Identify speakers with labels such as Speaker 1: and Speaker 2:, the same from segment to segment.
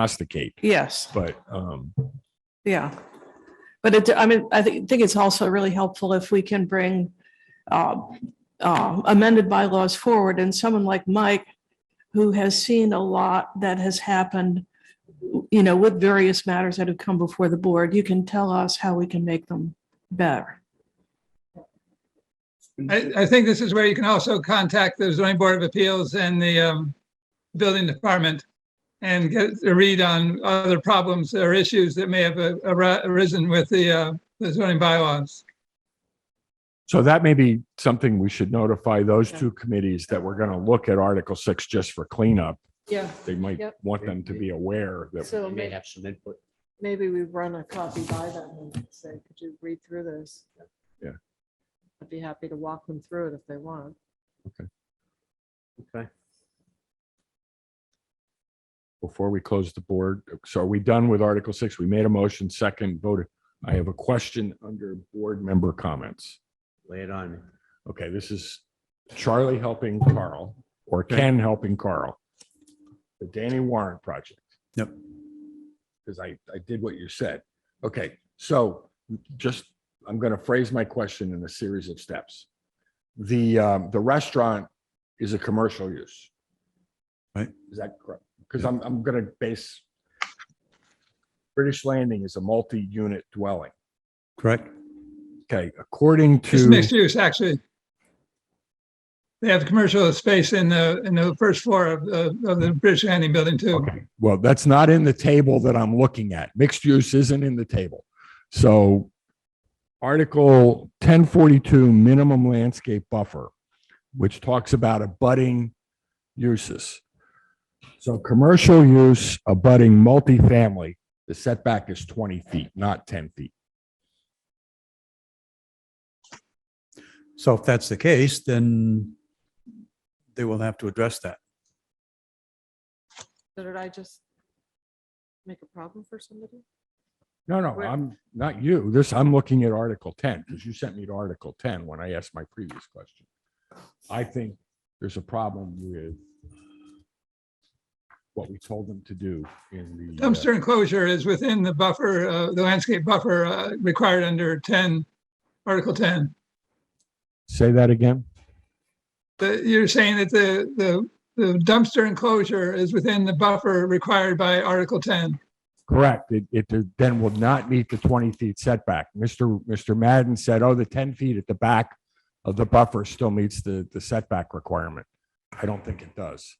Speaker 1: prognosticate,
Speaker 2: Yes,
Speaker 1: but um,
Speaker 2: yeah. But it, I mean, I think, think it's also really helpful if we can bring uh, uh, amended bylaws forward and someone like Mike, who has seen a lot that has happened, you know, with various matters that have come before the board, you can tell us how we can make them better.
Speaker 3: I, I think this is where you can also contact the zoning board of appeals and the um, building department and get a read on other problems or issues that may have uh, ar- arisen with the uh, the zoning bylaws.
Speaker 1: so that may be something we should notify those two committees that we're going to look at Article Six just for cleanup.
Speaker 4: Yeah,
Speaker 1: They might
Speaker 4: Yep.
Speaker 1: want them to be aware that
Speaker 4: so
Speaker 5: You may
Speaker 4: may-
Speaker 5: have some input.
Speaker 4: maybe we run a copy by them and say, could you read through this?
Speaker 1: Yeah.
Speaker 4: I'd be happy to walk them through it if they want.
Speaker 5: Okay.
Speaker 1: before we close the board. So are we done with Article Six? We made a motion, second voted. I have a question under board member comments.
Speaker 5: Lay it on me.
Speaker 1: Okay, this is Charlie helping Carl or Ken helping Carl. The Danny Warren project.
Speaker 6: Yep.
Speaker 1: Because I, I did what you said. Okay, so just, I'm going to phrase my question in a series of steps. The, um, the restaurant is a commercial use.
Speaker 6: Right.
Speaker 1: Is that correct? Because I'm, I'm going to base British Landing is a multi-unit dwelling.
Speaker 6: correct?
Speaker 1: Okay, according to.
Speaker 3: It's mixed use, actually. They have commercial space in the, in the first floor of the, of the British Landing Building too.
Speaker 1: Okay, well, that's not in the table that I'm looking at. Mixed use isn't in the table. So Article ten forty-two, minimum landscape buffer, which talks about abutting uses. So commercial use abutting multifamily, the setback is twenty feet, not ten feet.
Speaker 6: So if that's the case, then they will have to address that.
Speaker 4: So Did I just make a problem for somebody?
Speaker 1: No, no,
Speaker 4: Where-
Speaker 1: I'm not you. This, I'm looking at Article ten, because you sent me to Article ten when I asked my previous question. I think there's a problem with what we told them to do in the. uh,
Speaker 3: Dumpster enclosure is within the buffer, uh, the landscape buffer uh, required under 10, Article 10.
Speaker 1: Say that again?
Speaker 3: the, you're saying that the, the, the dumpster enclosure is within the buffer required by Article ten.
Speaker 1: Correct. It, it then will not meet the twenty feet setback. Mr. Mr. Madden said, oh, the ten feet at the back of the buffer still meets the, the setback requirement. I don't think it does.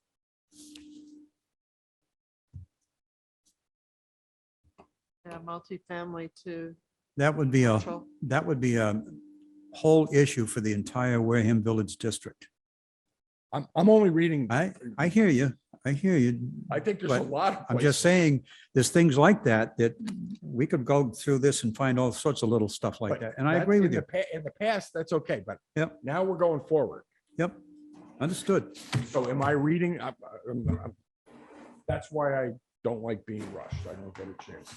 Speaker 4: Yeah, multifamily to
Speaker 6: That would be a,
Speaker 4: control.
Speaker 6: that would be a whole issue for the entire Wareham Village District.
Speaker 1: I'm, I'm only reading,
Speaker 6: I, I hear you. I hear you.
Speaker 1: I think there's a
Speaker 6: But
Speaker 1: lot. of
Speaker 6: I'm just
Speaker 1: places-
Speaker 6: saying, there's things like that, that we could go through this and find all sorts of little stuff like
Speaker 1: But
Speaker 6: that. And I
Speaker 1: that-
Speaker 6: agree with
Speaker 1: in
Speaker 6: you.
Speaker 1: the pa- In the past, that's okay, but
Speaker 6: Yep.
Speaker 1: now we're going forward.
Speaker 6: Yep. Understood.
Speaker 1: So am I reading? I- I- I'm- I'm- That's why I don't like being rushed. I don't get a chance.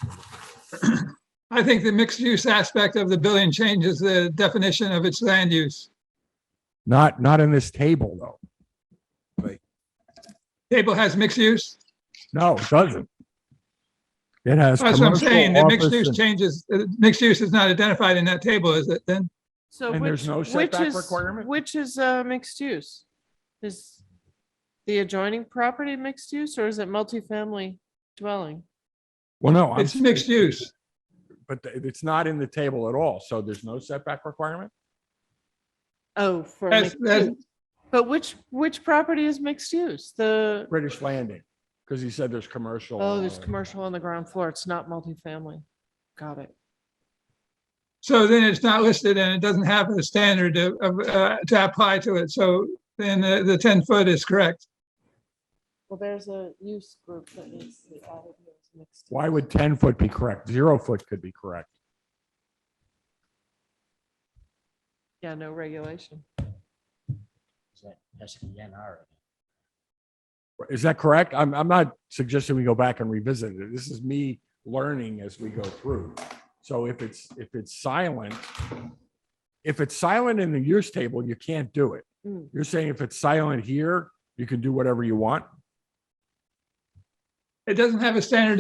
Speaker 3: I think the mixed use aspect of the building changes the definition of its land use.
Speaker 1: Not, not in this table, though.
Speaker 3: Table has mixed use.
Speaker 1: No, it doesn't. It has.
Speaker 3: That's what I'm
Speaker 1: commercial,
Speaker 3: saying. The mixed
Speaker 1: office,
Speaker 3: use
Speaker 1: and-
Speaker 3: changes, uh, mixed use is not identified in that table, is it then?
Speaker 4: So
Speaker 1: And there's
Speaker 4: which,
Speaker 1: no
Speaker 4: which
Speaker 1: setback
Speaker 4: is,
Speaker 1: requirement?
Speaker 4: which is uh, mixed use? Is the adjoining property mixed use or is it multifamily dwelling?
Speaker 1: Well, no. I'm-
Speaker 3: It's mixed use.
Speaker 1: But th- it's not in the table at all. So there's no setback requirement?
Speaker 4: Oh, for
Speaker 3: That's-
Speaker 4: mixed
Speaker 3: that's-
Speaker 4: use. But which, which property is mixed use? The,
Speaker 1: British Landing, because he said there's commercial.
Speaker 4: oh, there's
Speaker 1: uh,
Speaker 4: commercial on the ground floor. It's not multifamily. Got it.
Speaker 3: So then it's not listed and it doesn't have a standard of, of, uh, to apply to it. So then the, the ten foot is correct.
Speaker 4: Well, there's a use group that needs to be added here. It's mixed
Speaker 1: Why
Speaker 4: use.
Speaker 1: would 10 foot be correct? Zero foot could be correct.
Speaker 4: Yeah, no regulation.
Speaker 5: Is that- That's the DNR.
Speaker 1: Is that correct? I'm, I'm not suggesting we go back and revisit it. This is me learning as we go through. So if it's, if it's silent, if it's silent in the use table, you can't do it.
Speaker 4: Mm.
Speaker 1: You're saying if it's silent here, you can do whatever you want?
Speaker 3: It doesn't have a standard